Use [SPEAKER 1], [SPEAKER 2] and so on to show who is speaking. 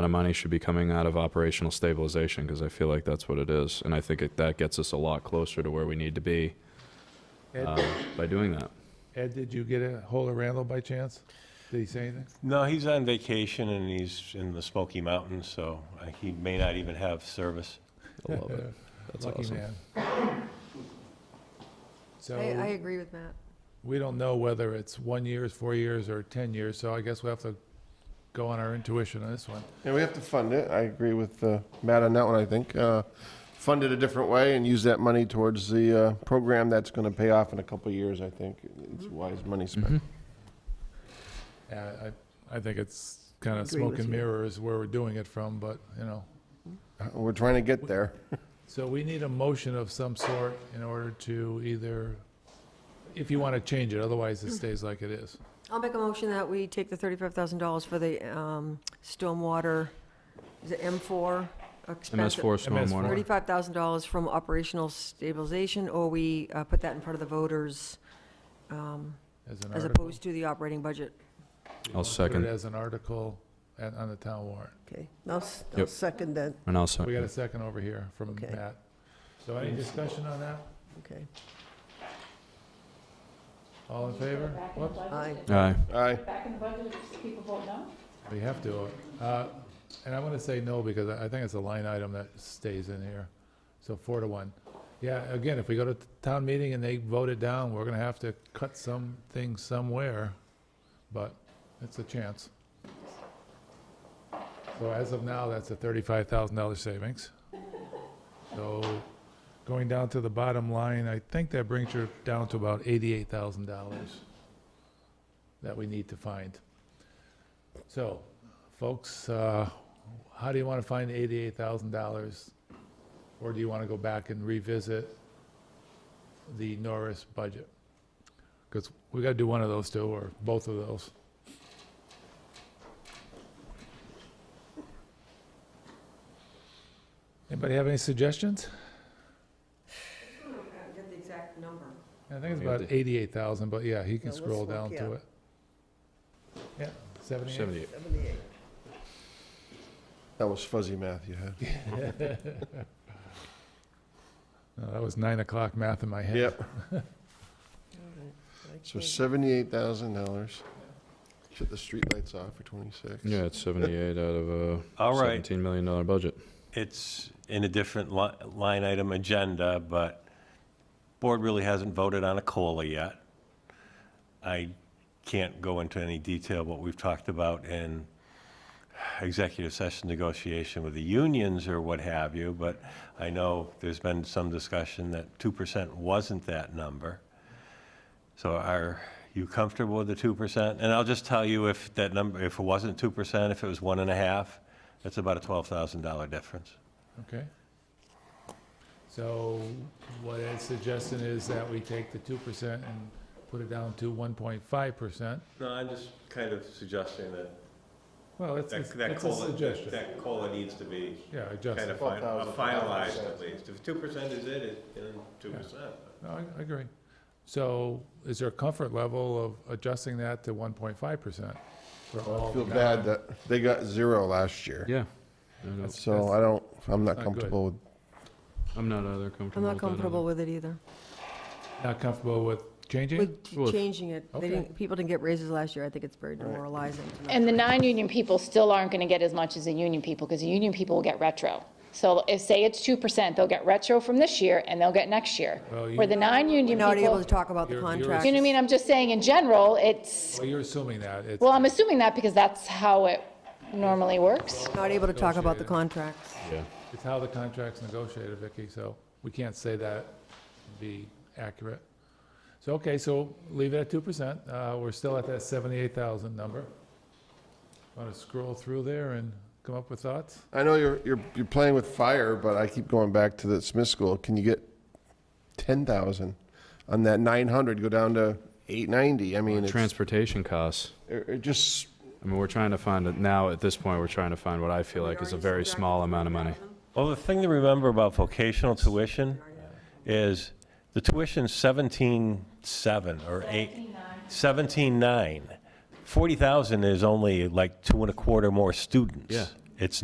[SPEAKER 1] lot of money should be coming out of operational stabilization because I feel like that's what it is. And I think it, that gets us a lot closer to where we need to be uh,
[SPEAKER 2] Ed,
[SPEAKER 1] by doing that.
[SPEAKER 2] Ed, did you get a hold of Randall by chance? Did he say anything?
[SPEAKER 3] No, he's on vacation and he's in the Smoky Mountains, so uh, he may not even have service.
[SPEAKER 1] I love it. Oh, That's
[SPEAKER 2] Uh, Lucky
[SPEAKER 1] awesome.
[SPEAKER 2] man.
[SPEAKER 4] I, I
[SPEAKER 2] So
[SPEAKER 4] agree with Matt.
[SPEAKER 2] we don't know whether it's one years, four years, or 10 years, so I guess we have to go on our intuition on this one.
[SPEAKER 5] Yeah, we have to fund it. I agree with uh, Matt on that one, I think. Uh, Fund it a different way and use that money towards the uh, program that's going to pay off in a couple of years, I think. It's wise money spent.
[SPEAKER 2] Yeah, Uh, I, I think it's kind of
[SPEAKER 6] Agree with
[SPEAKER 2] smoke and
[SPEAKER 6] you.
[SPEAKER 2] mirrors where we're doing it from, but, you know.
[SPEAKER 5] We're trying to get there.
[SPEAKER 2] So we need a motion of some sort in order to either, if you want to change it, otherwise it stays like it is.
[SPEAKER 4] I'll make a motion that we take the thirty-five thousand dollars for the, um, stormwater, is it M four?
[SPEAKER 1] MS4
[SPEAKER 2] MS4.
[SPEAKER 1] stormwater.
[SPEAKER 4] Thirty-five thousand dollars from operational stabilization, or we, uh, put that in front of the voters, um,
[SPEAKER 2] an
[SPEAKER 4] as
[SPEAKER 2] article.
[SPEAKER 4] opposed to the operating budget.
[SPEAKER 1] I'll
[SPEAKER 2] Put it
[SPEAKER 1] second.
[SPEAKER 2] as an article at- on the town warrant.
[SPEAKER 6] Okay, I'll, s- I'll
[SPEAKER 1] Yep.
[SPEAKER 6] second that,
[SPEAKER 1] And I'll
[SPEAKER 2] We got
[SPEAKER 1] second.
[SPEAKER 2] a second over here from
[SPEAKER 6] Okay.
[SPEAKER 2] Matt. So any discussion on that?
[SPEAKER 6] okay.
[SPEAKER 2] All in favor? Whoops,
[SPEAKER 6] Aye.
[SPEAKER 1] Aye.
[SPEAKER 5] Aye.
[SPEAKER 2] we have to. uh, And I'm going to say no because I I think it's a line item that stays in here. So four to one. Yeah, again, if we go to t- town meeting and they vote it down, we're going to have to cut some things somewhere, but it's a chance. So as of now, that's a $35,000 savings. So going down to the bottom line, I think that brings you down to about $88,000 that we need to find. So, folks, uh, how do you want to find eighty-eight thousand dollars? Or do you want to go back and revisit the Norris budget? Because we got to do one of those two, or both of those. Anybody have any suggestions?
[SPEAKER 4] Get the exact number.
[SPEAKER 2] I think it's
[SPEAKER 1] We got
[SPEAKER 2] about eighty-eight thousand, but yeah, he can
[SPEAKER 6] Yeah, let's
[SPEAKER 2] scroll
[SPEAKER 6] look,
[SPEAKER 2] down to
[SPEAKER 6] yeah.
[SPEAKER 2] it. Yeah, seventy-eight.
[SPEAKER 1] 78.
[SPEAKER 6] Seventy-eight.
[SPEAKER 5] That was fuzzy math you had.
[SPEAKER 2] No, That was nine o'clock math in my head.
[SPEAKER 5] Yep.
[SPEAKER 6] All right. I
[SPEAKER 5] So
[SPEAKER 6] can't-
[SPEAKER 5] seventy-eight thousand dollars. Shut the streetlights off for twenty-six.
[SPEAKER 1] Yeah, it's 78 out of a
[SPEAKER 3] All right,
[SPEAKER 1] $17 million dollar budget.
[SPEAKER 3] it's in a different li- line item agenda, but board really hasn't voted on a COLA yet. I can't go into any detail what we've talked about in executive session negotiation with the unions or what have you, but I know there's been some discussion that 2% wasn't that number. So are you comfortable with the 2%? And I'll just tell you if that number, if it wasn't 2%, if it was one and a half, that's about a $12,000 difference.
[SPEAKER 2] Okay. So what Ed's suggesting is that we take the two percent and put it down to one point five percent.
[SPEAKER 3] No, I'm just kind of suggesting that,
[SPEAKER 2] Well, it's, it's it's a suggestion.
[SPEAKER 3] COLA needs to be
[SPEAKER 2] Yeah, adjusted.
[SPEAKER 5] fin- uh, finalized at
[SPEAKER 3] least. If 2% is it, then
[SPEAKER 2] 2%. No, I, I agree. So is there a comfort level of adjusting that to one point five percent?
[SPEAKER 5] I feel bad that they got zero last year.
[SPEAKER 1] Yeah. I don't-
[SPEAKER 2] That's-
[SPEAKER 5] So I don't, I'm
[SPEAKER 2] not
[SPEAKER 5] not
[SPEAKER 2] good.
[SPEAKER 5] comfortable with,
[SPEAKER 1] I'm not either comfortable
[SPEAKER 4] I'm not
[SPEAKER 1] with that either.
[SPEAKER 4] comfortable with it either.
[SPEAKER 2] Not comfortable with changing? it?
[SPEAKER 4] With
[SPEAKER 1] Well, if-
[SPEAKER 4] changing it,
[SPEAKER 2] Okay.
[SPEAKER 4] they didn't, people didn't get raises last year, I think it's very demoralizing. to not-
[SPEAKER 7] And the non-union people still aren't going to get as much as the union people, because the union people will get retro. So if, say it's 2%, they'll get retro from this year, and they'll get next year.
[SPEAKER 2] Well, you-
[SPEAKER 7] Where the non-union people,
[SPEAKER 4] Not
[SPEAKER 7] you know
[SPEAKER 4] able
[SPEAKER 7] what
[SPEAKER 4] to talk about the
[SPEAKER 2] You're- you're-
[SPEAKER 4] contract.
[SPEAKER 7] I mean? I'm just saying, in general, it's,
[SPEAKER 2] Well, you're assuming that. It's,
[SPEAKER 7] well, I'm assuming that because that's how it normally works.
[SPEAKER 4] Not able to talk about the
[SPEAKER 2] Negotiated.
[SPEAKER 4] contracts.
[SPEAKER 1] Yeah.
[SPEAKER 2] it's how the contract's negotiated, Vicky, so we can't say that would be accurate. So, okay, so leave it at two percent. Uh, we're still at that seventy-eight thousand number. Want to scroll through there and come up with thoughts?
[SPEAKER 5] I know you're, you're, you're playing with fire, but I keep going back to the Smith School. Can you get ten thousand on that nine hundred, go down to eight ninety? I mean, it's,
[SPEAKER 1] Transportation costs.
[SPEAKER 5] it it just,
[SPEAKER 1] I mean, we're trying to find, it now at this point, we're trying to find what I feel like is a very small amount of money.
[SPEAKER 3] Well, the thing to remember about vocational tuition is the tuition's seventeen seven or eight. Seventeen nine. Forty thousand is only like two and a quarter more students.
[SPEAKER 1] Yeah.